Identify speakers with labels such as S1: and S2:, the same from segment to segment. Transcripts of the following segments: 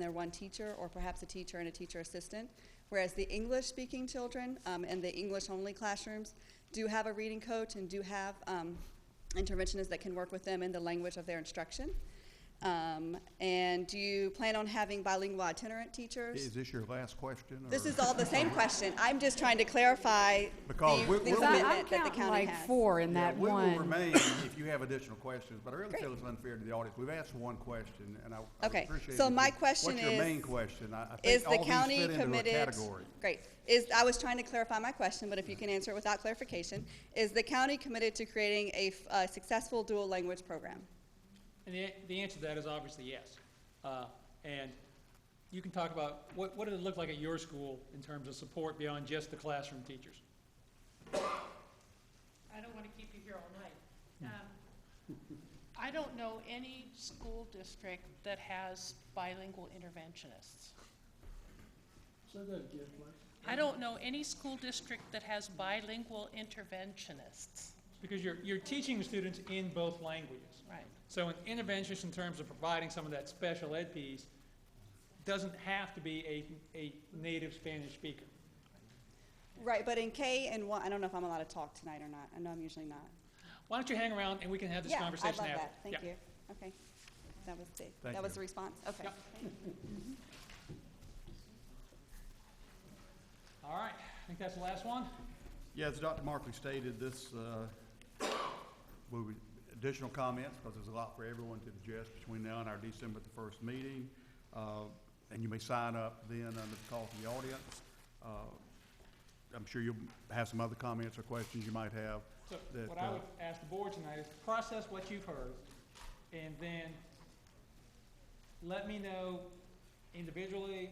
S1: their one teacher, or perhaps a teacher and a teacher assistant. Whereas the English-speaking children um, and the English-only classrooms do have a reading coach and do have um, interventionists that can work with them in the language of their instruction. Um, and do you plan on having bilingual itinerant teachers?
S2: Is this your last question?
S1: This
S2: or-
S1: is all the same question. I'm just trying to clarify the the
S2: Because we- we'll-
S1: commitment that the
S3: I'm counting
S1: county
S3: like
S1: has.
S3: four in
S2: Yeah,
S3: that
S2: We will
S3: one.
S2: remain if you have additional questions, but I really
S1: Great.
S2: feel it's unfair to the audience. We've asked one question, and I I would
S1: Okay,
S2: appreciate
S1: so
S2: it if
S1: my
S2: you-
S1: question
S2: What's your main
S1: is-
S2: question? I I
S1: Is
S2: think
S1: the
S2: all these
S1: county
S2: fit into a
S1: committed?
S2: category.
S1: Great. Is, I was trying to clarify my question, but if you can answer it without clarification, is the county committed to creating a f- a successful dual language program?
S4: And the, the answer to that is obviously yes. Uh, and you can talk about what, what did it look like at your school in terms of support beyond just the classroom teachers?
S5: I don't want to keep you here all night. Um, I don't know any school district that has bilingual interventionists. I don't know any school district that has bilingual interventionists.
S4: Because you're, you're teaching students in both languages.
S5: Right.
S4: So an interventionist in terms of providing some of that special ed piece doesn't have to be a, a native Spanish speaker.
S1: Right, but in K and one, I don't know if I'm allowed to talk tonight or not. I know I'm usually not.
S4: Why don't you hang around and we can have this
S1: Yeah, I love
S4: conversation after?
S1: that. Thank
S4: Yeah.
S1: you. Okay. That was the,
S2: Thank
S1: that was
S2: you.
S1: the response? Okay.
S4: Yeah. All right, I think that's the last one.
S2: Yeah, as Dr. Markley stated, this uh, will be additional comments, because there's a lot for everyone to digest between now and our December the first meeting. Uh, And you may sign up then under the call to the audience. Uh, I'm sure you'll have some other comments or questions you might have.
S4: So
S2: that,
S4: what I
S2: uh,
S4: would ask the board tonight is process what you've heard and then let me know individually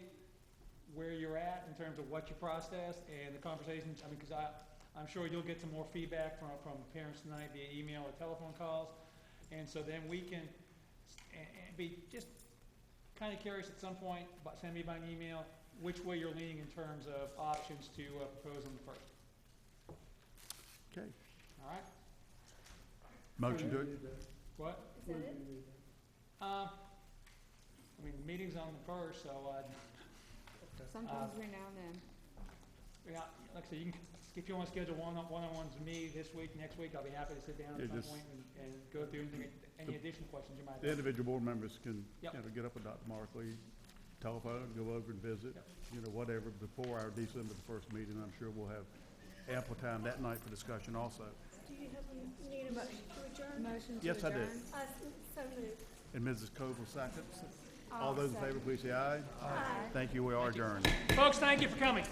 S4: where you're at in terms of what you processed and the conversations. I mean, because I, I'm sure you'll get some more feedback from, from parents tonight via email or telephone calls. And so then we can, and, and be just kind of curious at some point, but send me by an email, which way you're leaning in terms of options to uh, propose on the first,
S2: Okay,
S4: all right?
S2: motion to,
S4: What? Um, I mean, the meeting's on the first, so, uh,
S2: Uh,
S3: Sometimes every now and then.
S4: yeah, like I said, you can, if you wanna schedule one, one-on-ones with me this week, next week, I'll be happy to sit down
S2: Yeah,
S4: at some
S2: just-
S4: point and, and go through any- any
S2: The-
S4: additional questions you might
S2: the
S4: have.
S2: individual board members can, you
S4: Yep.
S2: know, get up with Dr. Markley, telephone, go over and visit,
S4: Yep.
S2: you know, whatever, before our December the first meeting. I'm sure we'll have ample time that night for discussion also.
S6: Do you have, you need a motion to adjourn?
S3: Motion to
S2: Yes, I do.
S3: adjourn?
S6: Uh, so moved.
S2: And Mrs. Koval seconds. All those in favor, please say aye. Aye. Thank you, we are adjourned.
S4: Folks, thank you for coming.